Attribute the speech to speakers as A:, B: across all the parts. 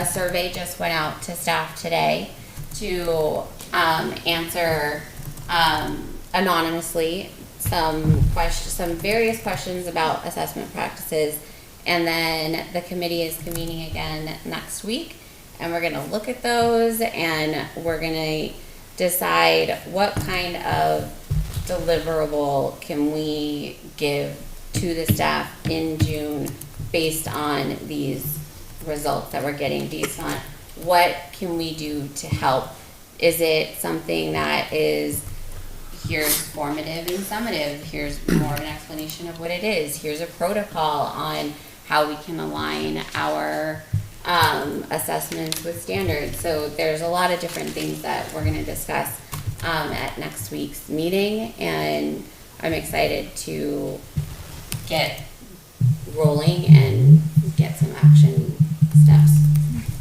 A: A survey just went out to staff today to um, answer um, anonymously some questions, some various questions about assessment practices. And then the committee is convening again next week, and we're gonna look at those, and we're gonna decide what kind of deliverable can we give to the staff in June based on these results that we're getting, based on what can we do to help? Is it something that is here's formative and summative, here's more of an explanation of what it is, here's a protocol on how we can align our um, assessments with standards. So there's a lot of different things that we're gonna discuss um, at next week's meeting, and I'm excited to get rolling and get some action steps.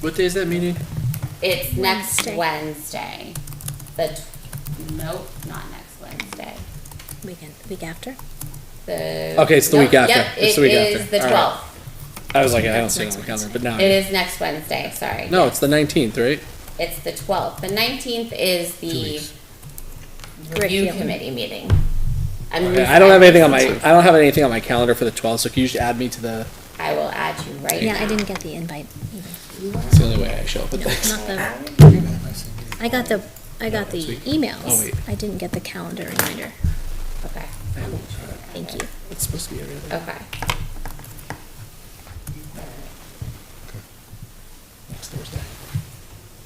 B: What day is that meeting?
A: It's next
C: Wednesday.
A: Wednesday, the, tw- nope, not next Wednesday.
C: Weekend, week after?
A: The.
B: Okay, it's the week
A: Nope,
B: after.
A: Yep,
B: It's
A: it
B: the week
A: is
B: after.
A: the
B: All right.
A: twelfth.
B: I was like, I don't see it on the calendar, but now. I
A: It
B: do.
A: is next Wednesday, sorry.
B: No, it's the nineteenth, right?
A: It's the twelfth. The nineteenth is the
B: weeks.
A: review
C: Curriculum.
A: committee meeting. I'm
B: Okay, I don't have anything on my, I don't have anything on my calendar for the twelfth, so can you just add me to the,
A: I will add you right now.
C: Yeah, I didn't get the invite either.
B: it's the only way I show up at
C: No,
B: this.
C: not the, I got the, I got the
B: week.
C: emails.
B: Oh, wait.
C: I didn't get the calendar reminder.
A: Okay,
C: Thank you.
B: It's supposed to be every other.
A: okay.
B: Next Thursday.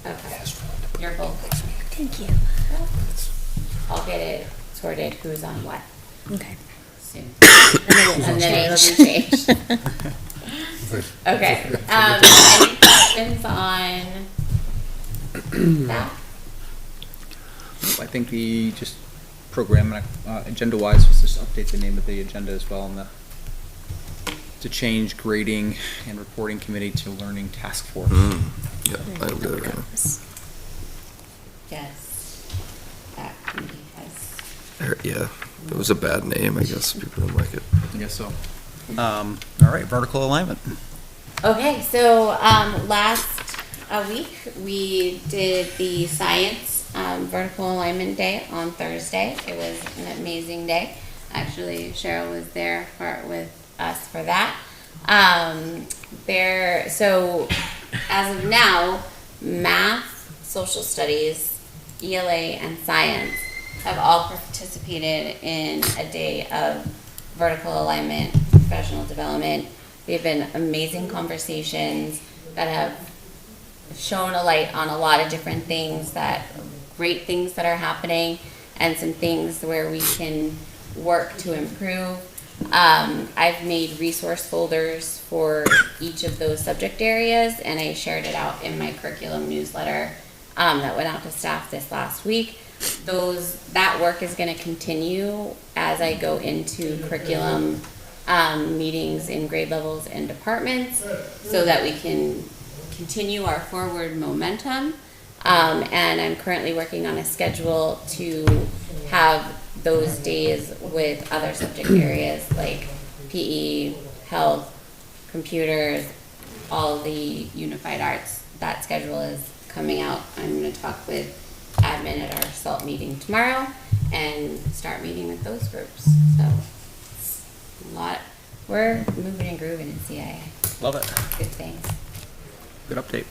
A: Okay. Your vote.
C: Thank you.
A: I'll get it sorted who's on what
C: Okay.
A: soon. And then it'll be changed. Okay, um, any questions on that?
D: I think the, just program, uh, agenda-wise, was just update the name of the agenda as well and the, to change grading and reporting committee to learning task force.
E: Yeah, I
C: There
E: don't do
C: we
E: it.
C: go.
A: Yes. That committee has.
E: Er, Yeah, it was a bad name, I guess, people didn't like it.
D: I guess so. Um, all right, vertical alignment.
A: Okay, so um, last uh, week we did the science um, vertical alignment day on Thursday. It was an amazing day. Actually, Cheryl was there for with us for that. Um, there, so as of now, math, social studies, ELA, and science have all participated in a day of vertical alignment, professional development. They've been amazing conversations that have shown a light on a lot of different things that great things that are happening and some things where we can work to improve. Um, I've made resource folders for each of those subject areas and I shared it out in my curriculum newsletter um, that went out to staff this last week. Those that work is going to continue as I go into curriculum um, meetings in grade levels and departments so that we can continue our forward momentum. Um, and I'm currently working on a schedule to have those days with other subject areas like PE, health, computers, all the unified arts. That schedule is coming out. I'm going to talk with admin at our SALT meeting tomorrow and start meeting with those groups. So, it's a lot. We're moving and grooving in CIA.
D: Love it.
A: Good things.
D: Good update.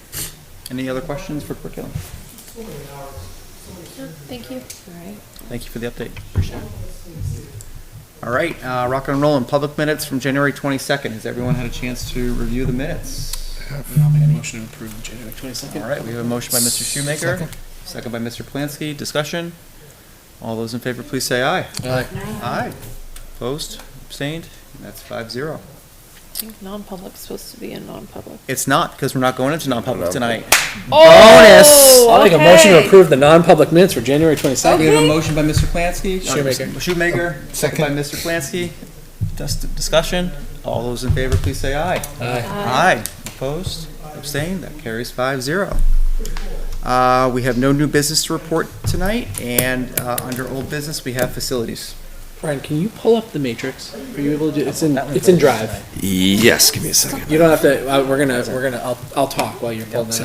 D: Any other questions for curriculum?
C: Thank you.
A: All right.
D: Thank you for the update. Appreciate it. All right, uh, rock and roll in public minutes from January twenty-second. Has everyone had a chance to review the minutes?
B: I'll make a motion to approve January twenty-second.
D: All right, we have a motion by Mr. Shoemaker, second by Mr. Plansky. Discussion? All those in favor, please say aye. Aye. Opposed? Abstained? That's five zero.
F: I think non-public's supposed to be in non-public.
D: It's not, because we're not going into non-public tonight.
B: I'll make a motion to
F: okay.
B: approve the non-public minutes for January twenty-second.
D: We have a motion by Mr. Plansky.
B: Shoemaker.
D: Shoemaker, second by Mr. Plansky. Dis- Discussion? All those in favor, please say aye. Aye. Opposed? Abstained? That carries five zero. Uh, we have no new business to report tonight, and, uh, under old business, we have facilities.
B: Brian, can you pull up the matrix? Are you able to do, it's in, it's in Drive.
E: Yes, give me a second.
B: You don't have to, uh, we're gonna, we're gonna, I'll, I'll talk while you're pulling that up.